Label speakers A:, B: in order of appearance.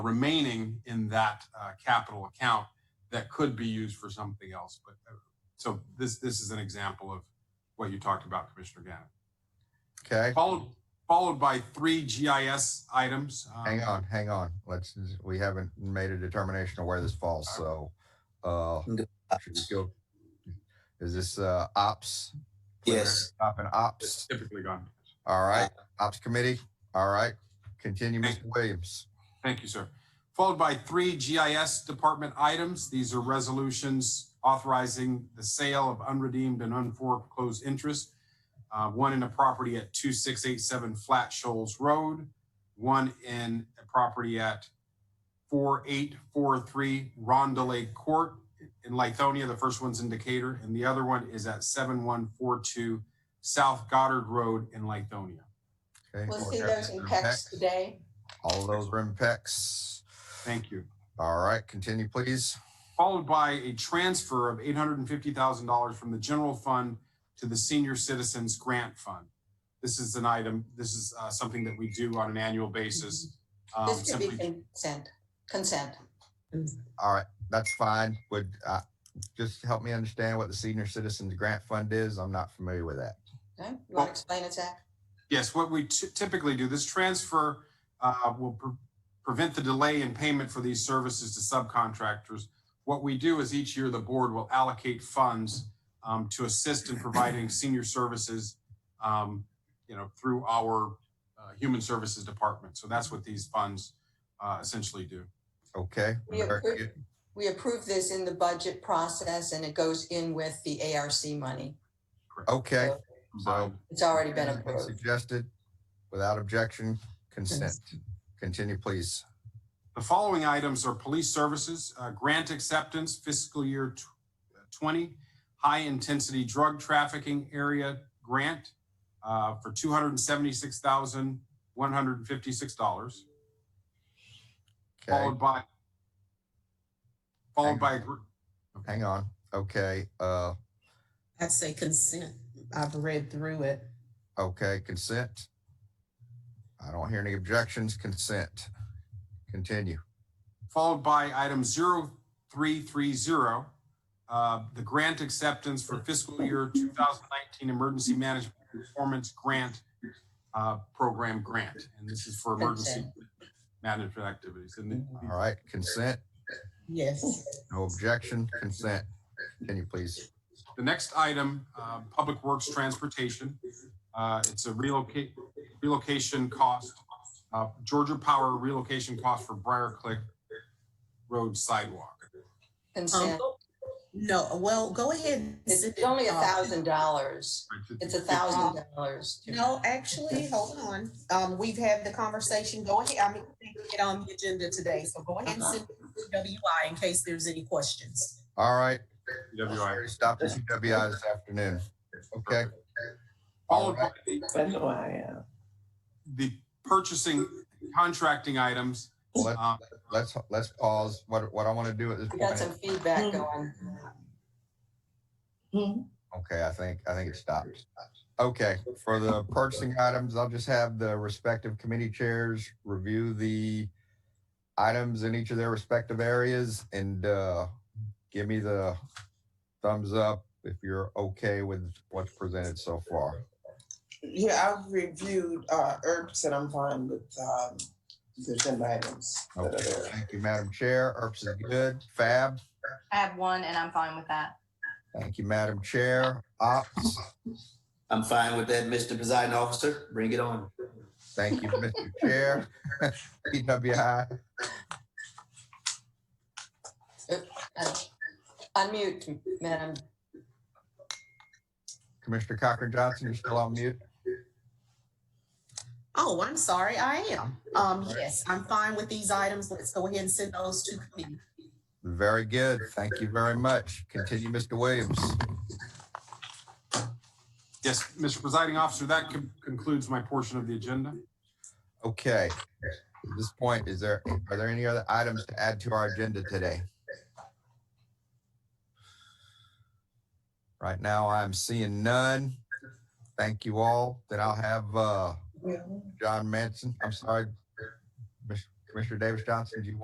A: remaining in that uh, capital account that could be used for something else. But uh, so this this is an example of what you talked about, Commissioner Gannon.
B: Okay,
A: Followed followed by three GIS items. Um,
B: hang on, hang on. Let's, we haven't made a determination of where this falls, so, uh, should we go? Is this, uh, ops?
C: Yes.
B: Up in
A: It's
B: ops,
A: typically gone.
B: all right, ops committee, all right. Continue, Mr. Williams.
A: Thank you, sir. Followed by three GIS department items. These are resolutions authorizing the sale of unredeemed and unforeclosed interest. Uh, one in a property at two six eight seven Flat Shoals Road, one in a property at four eight four three Rondelay Court in Lithonia. The first one's in Decatur, and the other one is at seven one four two South Goddard Road in Lithonia.
B: Okay.
D: We'll see those in PEX today.
B: All those are in PEX.
A: Thank you.
B: All right, continue, please.
A: followed by a transfer of eight hundred and fifty thousand dollars from the general fund to the senior citizens grant fund. This is an item, this is uh, something that we do on an annual basis. Um,
D: This could be
A: simply-
D: consent, consent.
B: All right, that's fine. Would, uh, just help me understand what the senior citizens grant fund is. I'm not familiar with that.
D: Okay, you want to explain it, Zach?
A: Yes, what we ty- typically do, this transfer uh, will pre- prevent the delay in payment for these services to subcontractors. What we do is each year, the board will allocate funds um, to assist in providing senior services, um, you know, through our uh, Human Services Department. So that's what these funds uh, essentially do.
B: Okay.
D: We
B: very
D: approve-
B: good.
D: We approved this in the budget process and it goes in with the ARC money.
B: Okay.
D: So
B: So-
D: It's already been
B: Has been
D: approved.
B: Suggested, without objection, consent. Continue, please.
A: The following items are police services, uh, grant acceptance fiscal year tw- uh, 20, high-intensity drug trafficking area grant uh, for $276,156,
B: Okay,
A: followed by, followed
B: Hang
A: by, a gr-
B: hang on. Okay, uh,
E: I'd say consent. I've read through it.
B: okay, consent. I don't hear any objections, consent. Continue.
A: followed by item 0330, uh, the grant acceptance for fiscal year 2019 Emergency Management Performance Grant uh, Program Grant. And this is for emergency management activities. And the-
D: Mm-hmm.
A: uh,
B: All right, consent,
E: Yes.
B: no objection, consent. Continue, please.
A: The next item, uh, Public Works Transportation. Uh, It's a relocate, relocation cost, uh, Georgia Power relocation cost for Briarcliff Road sidewalk.
F: Oh,
E: Um,
D: Consent.
E: go- no, well, go ahead. and
D: It's
E: send
D: it's
E: it,
D: only a
E: uh,
D: thousand dollars.
A: Right?
D: It's a thousand dollars.
E: No, actually, hold on. Um, we've had the conversation. Go ahead. I mean, we didn't get on the agenda today, so go ahead and
F: Uh-huh.
E: send it to WI in case there's any questions.
B: All right,
A: TWI.
B: stop the UWI this afternoon. Okay,
A: Followed by
F: I know I am.
A: the purchasing contracting items.
B: let's,
A: Um,
B: let's, let's pause. What, what I want to do at this
D: We
B: point.
D: got
B: is-
D: some
G: Hmm.
D: feedback going.
B: Okay, I think, I think it stopped. Okay, for the purchasing items, I'll just have the respective committee chairs review the items in each of their respective areas and uh, give me the thumbs up if you're okay with what's presented so far.
F: Yeah, I've reviewed uh herbs and I'm fine with um the agenda items. that are
B: Okay,
F: there.
B: thank you, Madam Chair. ERPS is good. Fab,
G: I have one and I'm fine with that.
B: thank you, Madam Chair. Ops,
C: I'm fine with that, Mr. Presiding Officer. Bring it on.
B: thank you, Mr. Chair. PWI,
D: Uh, Unmute, Madam.
B: Commissioner Cochran Johnson, you're still on mute.
E: Oh, I'm sorry. I am. Um, yes, I'm fine with these items. Let's go ahead and send those to committee.
B: Very good. Thank you very much. Continue, Mr. Williams.
A: Yes, Mr. Presiding Officer, that con- concludes my portion of the agenda.
B: Okay. At this point, is there, are there any other items to add to our agenda today? Right now, I'm seeing none. Thank you all. Then I'll have, uh, John Manson, I'm sorry, Miss Commissioner Davis Johnson, do you want